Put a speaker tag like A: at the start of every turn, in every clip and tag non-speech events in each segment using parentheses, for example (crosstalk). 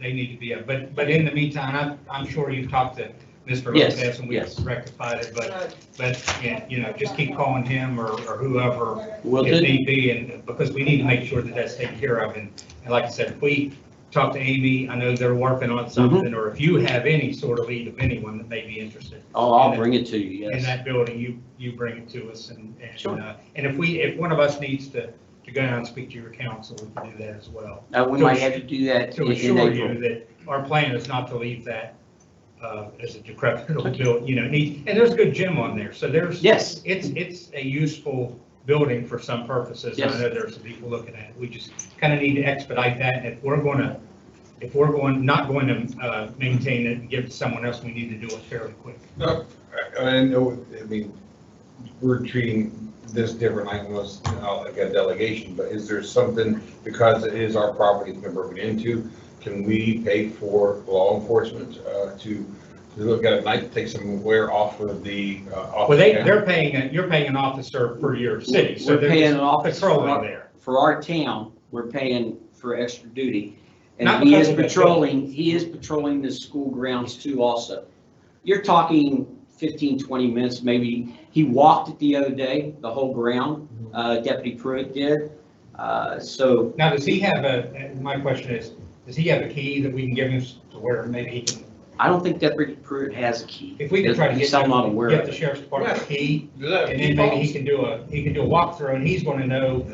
A: they need to be up. But, but in the meantime, I'm, I'm sure you've talked to Mr.
B: Yes,
A: Lopez and
B: yes.
A: we've rectified it, but, but, yeah, you know, just keep calling him or, or whoever
B: Will
A: if
B: do.
A: need be, and, because we need to make sure that that's taken care of. And, and like I said, if we talk to Amy, I know they're working
B: Mm-hmm.
A: on something, or if you have any sort of lead of anyone that may be interested
B: Oh, I'll bring it to you,
A: in
B: yes.
A: that building, you, you bring it to us and,
B: Sure.
A: and, uh, and if we, if one of us needs to, to go down and speak to your council, we can do that as well
B: Uh, we might have to do that in
A: to
B: in
A: assure you
B: April.
A: that our plan is not to leave that uh, as a decrepit old building, you know, need, and there's a good gym on there, so there's,
B: Yes,
A: it's, it's a useful building for some purposes. and I know there's some people looking at it, we just kind of need to expedite that, and if we're going to, if we're going, not going to uh, maintain it and give it to someone else, we need to do it fairly quick.
C: uh, I know, I mean, we're treating this different, like almost, you know, like a delegation, but is there something, because it is our property it's been broken into, can we pay for law enforcement uh, to, to look at it, like, take some wear off of the, uh, off?
A: Well, they,
C: the-
A: they're paying, a- you're paying an officer per your city, so
B: We're
A: they're
B: paying
A: just
B: an officer for
A: patrolling
B: our-
A: there.
B: for our town, we're paying for extra duty.
A: Not
B: And he
A: because
B: is
A: of the
B: patrolling, he is patrolling the school grounds too also. You're talking 15, 20 minutes maybe. He walked it the other day, the whole ground,
A: Mm-hmm.
B: uh, Deputy Pruitt did. Uh, So
A: Now, does he have a, and my question is, does he have a key that we can give him to where maybe he can,
B: I don't think Deputy Pruitt has a key.
A: if we can try to get.
B: He's- I'm not aware
A: Get
B: of
A: the
B: it.
A: sheriff's department a key,
C: Yeah,
A: and then maybe he can do a, he can do a walkthrough, and he's gonna know,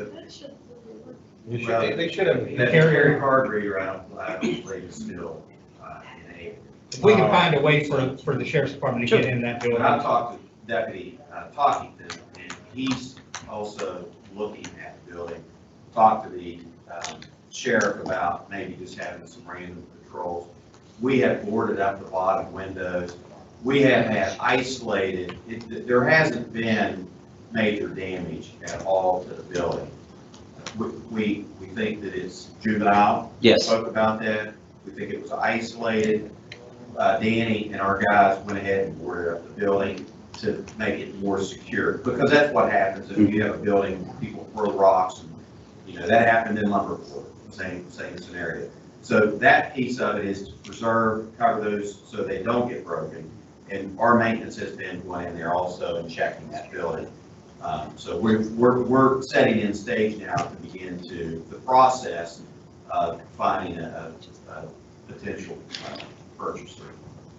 C: you should- They they should have.
D: That Terry Hard reroute, I believe is still uh, in April.
A: if we can find a way for, for the sheriff's department to get in that
D: But
A: building.
D: I talked to Deputy uh, Tockington, and he's also looking at the building. Talked to the um, sheriff about maybe just having some random patrols. We had boarded up the bottom windows. We have had isolated, it- there hasn't been major damage at all to the building. We, we, we think that it's juvenile,
B: Yes,
D: spoke about that. We think it was isolated. Uh, Danny and our guys went ahead and boarded up the building to make it more secure, because that's what happens if you have a building, people throw rocks. and You know, that happened in Lumberport, same, same scenario. So that piece of it is to preserve, cover those so they don't get broken. And our maintenance has been going in there also and checking that building. Um, So we're, we're, we're setting in stage now to begin to, the process of finding a, a a potential uh, purchaser.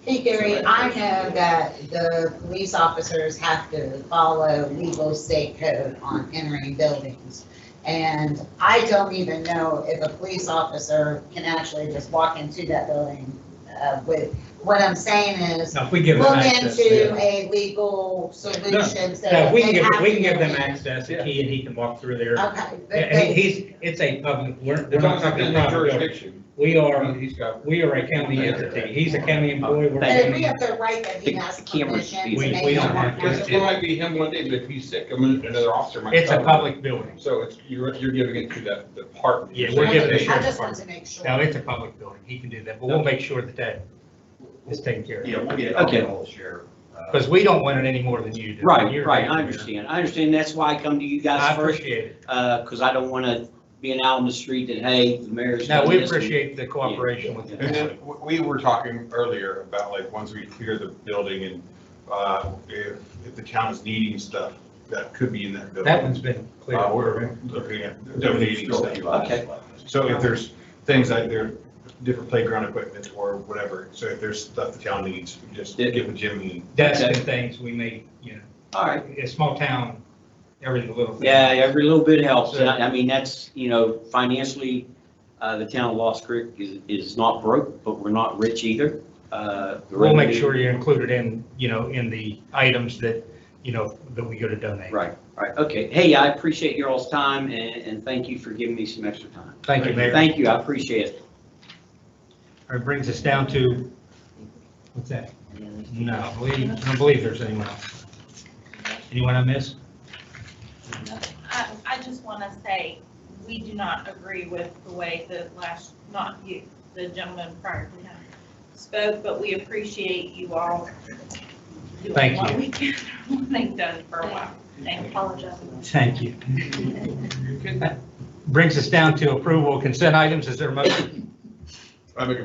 E: Hey Gary, I know that the police officers have to follow legal state code on entering buildings. And I don't even know if a police officer can actually just walk into that building uh, with, what I'm saying is,
A: Now, if we give them
E: look
A: access.
E: into a legal solution so
A: Yeah,
E: that
A: we
E: they
A: can give,
E: have
A: we
E: to
A: can give
E: get
A: them
E: in.
A: access, a key, and he can walk through there.
E: Okay, but
A: And he-
E: they,
A: he's, it's a public, we're,
C: We're
A: they're
C: not
A: not
C: talking
A: talking
C: about
A: private building.
C: jurisdiction.
A: We are,
C: He's got.
A: we are a county entity, he's a county employee, we're. a
E: but
B: Thank
E: if
A: county
E: we have to write that he
B: The
E: has
B: cameras
E: permission
B: be-
E: to
A: We-
E: make.
A: we
E: him
A: don't
E: walk
A: have to.
E: out.
C: Because it might be him one day, but if he's sick, I mean, another officer might.
A: It's a
C: cover him.
A: public building.
C: So it's, you're, you're giving it to that department.
A: Yeah, we're giving the
E: I
A: sheriff's
E: just
A: department.
E: want to make sure.
A: No, it's a public building, he can do that, but we'll make sure that that is taken care of.
D: Yeah, we'll get, I'll get
B: Okay.
D: ahold of Sheriff. uh,
A: Because we don't want it any more than you do.
B: right,
A: You're
B: right,
A: down
B: I
A: there.
B: understand. I understand, that's why I come to you
A: I
B: guys first,
A: appreciate it.
B: because uh, I don't want to be an out in the street that, hey, the mayor's.
A: No,
B: doing
A: we
B: this and-
A: appreciate the cooperation with
C: And
A: you.
C: then w- we were talking earlier about like, once we clear the building and uh, if, if the town is needing stuff, that could be in that building.
A: That one's been clear.
C: Uh, We're looking at donating
D: Still
C: stuff.
D: a few items
B: Okay.
D: left.
C: So if there's things like there, different playground equipment or whatever, so if there's stuff the town needs, just
B: Yeah.
C: give a Jimmy.
A: That's the things we may, you know,
B: All right,
A: a small town, every little thing.
B: yeah, every little bit helps. And I I mean, that's, you know, financially, uh, the town of Lost Creek is, is not broke, but we're not rich either. Uh, the
A: We'll make
B: revenue-
A: sure you're included in, you know, in the items that, you know, that we go to donate.
B: Right, right, okay. Hey, I appreciate your all's time and, and thank you for giving me some extra time.
A: Thank you, Mayor.
B: Thank you, I appreciate it.
A: It brings us down to, what's that? No, I believe, I don't believe there's anyone else. Anyone I missed?
F: I, I just want to say, we do not agree with the way that last, not you, the gentleman prior to him spoke, but we appreciate you all. doing
A: Thank
F: what
A: you.
F: we can, (laughs) what They've done for a while, and apologize.
A: Thank you. Brings us down to approval of consent items. Is there a motion?
C: I make a